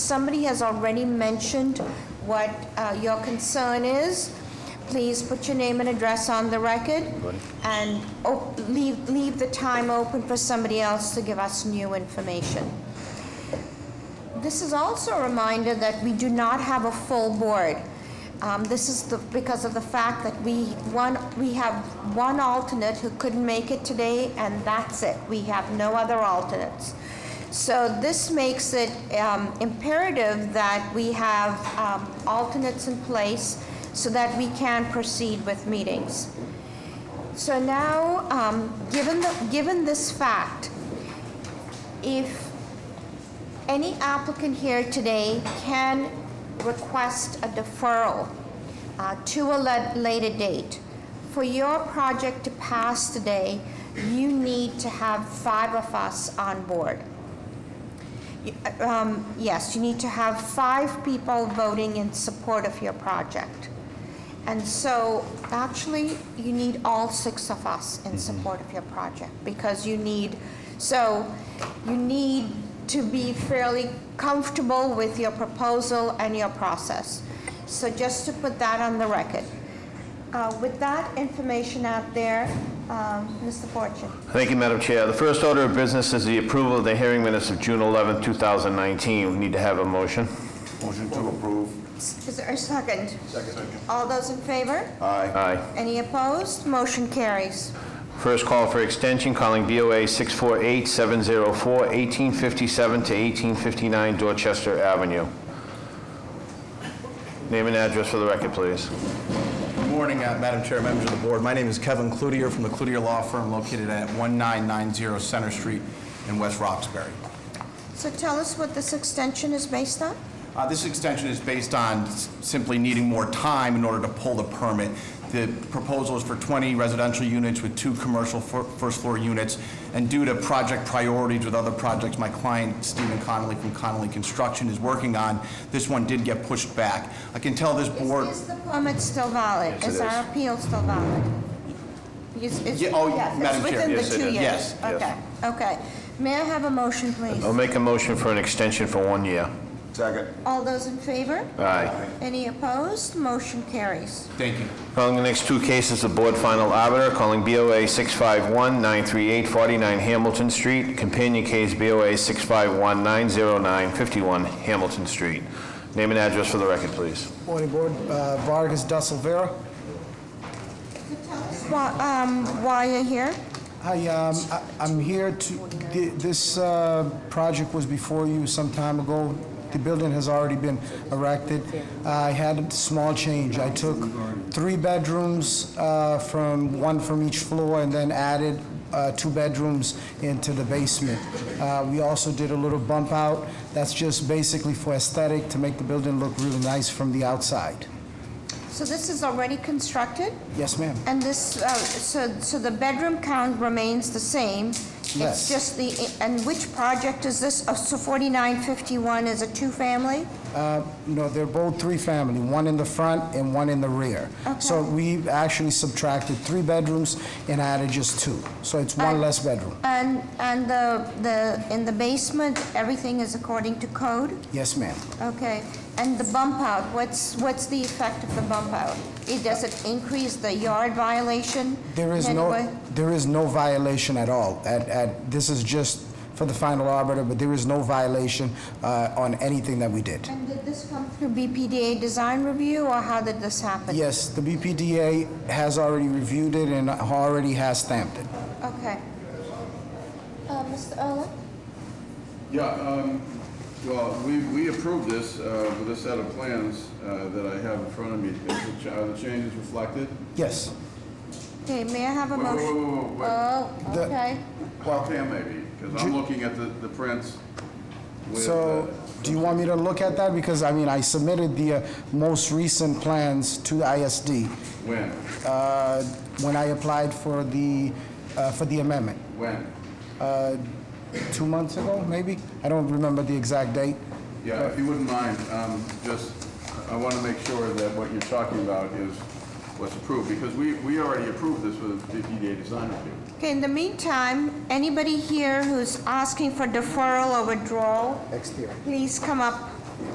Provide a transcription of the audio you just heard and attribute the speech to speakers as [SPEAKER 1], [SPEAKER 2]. [SPEAKER 1] somebody has already mentioned what uh, your concern is, please put your name and address on the record and op- leave, leave the time open for somebody else to give us new information. This is also a reminder that we do not have a full board. Um, This is the, because of the fact that we, one, we have one alternate who couldn't make it today, and that's it. We have no other alternates. So this makes it um, imperative that we have um, alternates in place so that we can proceed with meetings. So now, um, given the, given this fact, if any applicant here today can request a deferral uh, to a la- later date. For your project to pass today, you need to have five of us on board. You- uh, um, Yes, you need to have five people voting in support of your project. And so, actually, you need all six of us in support of your project, because you need, so you need to be fairly comfortable with your proposal and your process. So just to put that on the record. Uh, With that information out there, um, Mr. Fortune.
[SPEAKER 2] Thank you, Madam Chair. The first order of business is the approval of the hearing minutes of June 11, 2019. We need to have a motion.
[SPEAKER 3] Motion to approve.
[SPEAKER 1] Is there a second? All those in favor?
[SPEAKER 3] Aye.
[SPEAKER 2] Aye.
[SPEAKER 1] Any opposed? Motion carries.
[SPEAKER 2] First call for extension, calling BOA 648-704-1857 to 1859 Dorchester Avenue. Name and address for the record, please.
[SPEAKER 4] Good morning, uh, Madam Chair, members of the board. My name is Kevin Cloutier from the Cloutier Law Firm located at 1990 Center Street in West Roxbury.
[SPEAKER 1] So tell us what this extension is based on?
[SPEAKER 4] Uh, This extension is based on s- simply needing more time in order to pull the permit. The proposal is for 20 residential units with two commercial fir- first-floor units, and due to project priorities with other projects my client, Stephen Connolly from Connolly Construction, is working on, this one did get pushed back. I can tell this board...
[SPEAKER 1] Is the permit still valid?
[SPEAKER 2] Yes, it
[SPEAKER 1] Is our
[SPEAKER 2] is.
[SPEAKER 1] appeal still valid? Is- is-
[SPEAKER 4] Ye- oh,
[SPEAKER 1] yes, it's
[SPEAKER 4] Madam Chair.
[SPEAKER 1] within
[SPEAKER 2] Yes,
[SPEAKER 1] the
[SPEAKER 2] it
[SPEAKER 1] two
[SPEAKER 2] is.
[SPEAKER 1] years?
[SPEAKER 4] Yes,
[SPEAKER 2] yes.
[SPEAKER 1] Okay, okay. May I have a motion, please?
[SPEAKER 2] I'll make a motion for an extension for one year.
[SPEAKER 3] Second.
[SPEAKER 1] All those in favor?
[SPEAKER 2] Aye.
[SPEAKER 1] Any opposed? Motion carries.
[SPEAKER 4] Thank you.
[SPEAKER 2] Calling the next two cases, the board final arbiter, calling BOA 651-938-49 Hamilton Street, companion case BOA 651-909-51 Hamilton Street. Name and address for the record, please.
[SPEAKER 5] Morning, Board. Uh, Vargas da Silveira.
[SPEAKER 1] So tell us why- um, Why you're here?
[SPEAKER 5] Hi, um, I- I'm here to, thi- this uh, project was before you some time ago. The building has already been erected. I had a small change. I took three bedrooms uh, from, one from each floor, and then added uh, two bedrooms into the basement. Uh, We also did a little bump out. That's just basically for aesthetic, to make the building look really nice from the outside.
[SPEAKER 1] So this is already constructed?
[SPEAKER 5] Yes, ma'am?
[SPEAKER 1] And this, uh, so so the bedroom count remains the same? It's
[SPEAKER 5] Yes.
[SPEAKER 1] just the, and which project is this? Oh, So 4951 is a two-family?
[SPEAKER 5] No, they're both three-family, one in the front and one in the rear. So we actually subtracted three bedrooms and added just two. So it's one less bedroom.
[SPEAKER 1] And, and the, the, in the basement, everything is according to code?
[SPEAKER 5] Yes, ma'am.
[SPEAKER 1] Okay. And the bump out, what's, what's the effect of the bump out? It, does it increase the yard violation?
[SPEAKER 5] There is
[SPEAKER 1] in any
[SPEAKER 5] no,
[SPEAKER 1] way?
[SPEAKER 5] there is no violation at all. At, at, this is just for the final arbiter, but there is no violation uh, on anything that we did.
[SPEAKER 1] And did this come through BPDA design review, or how did this happen?
[SPEAKER 5] Yes, the BPDA has already reviewed it and already has stamped it.
[SPEAKER 1] Okay. Uh, Mr. Earl?
[SPEAKER 6] Yeah, um, well, we, we approved this, uh, with a set of plans, uh, that I have in front of me. Is the cha- Are the changes reflected?
[SPEAKER 5] Yes.
[SPEAKER 1] Okay, may I have a
[SPEAKER 6] Wait, wait,
[SPEAKER 1] motion?
[SPEAKER 6] wait, wait, wait.
[SPEAKER 1] Oh,
[SPEAKER 5] The-
[SPEAKER 1] okay.
[SPEAKER 6] Well, Pam maybe, because I'm looking at the, the prints with, uh,
[SPEAKER 5] So, do you want me to look at that? Because, I mean, I submitted the uh, most recent plans to the ISD
[SPEAKER 6] when,
[SPEAKER 5] uh, when I applied for the, uh, for the amendment,
[SPEAKER 6] when?
[SPEAKER 5] two months ago, maybe? I don't remember the exact date.
[SPEAKER 6] Yeah, if you wouldn't mind, um, just, I want to make sure that what you're talking about is what's approved, because we, we already approved this with the DDA design review.
[SPEAKER 1] Okay, in the meantime, anybody here who's asking for deferral or withdrawal,
[SPEAKER 5] Exterior.
[SPEAKER 1] please come up